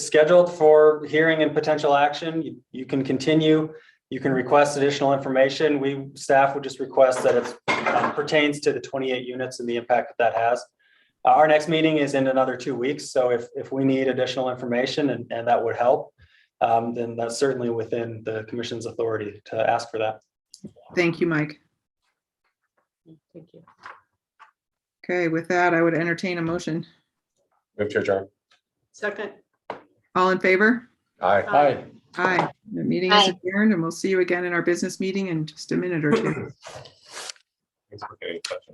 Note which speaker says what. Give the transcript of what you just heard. Speaker 1: scheduled for hearing and potential action. You- You can continue. You can request additional information. We, staff would just request that it uh, pertains to the 28 units and the impact that that has. Uh, Our next meeting is in another two weeks, so if, if we need additional information and, and that would help, um, then that's certainly within the commission's authority to ask for that.
Speaker 2: Thank you, Mike.
Speaker 3: Thank you.
Speaker 2: Okay, with that, I would entertain a motion.
Speaker 4: Move to adjourn.
Speaker 3: Second.
Speaker 2: All in favor?
Speaker 4: Aye.
Speaker 3: Aye.
Speaker 2: Aye. The meeting is adjourned and we'll see you again in our business meeting in just a minute or two.
Speaker 4: Thanks for getting in touch.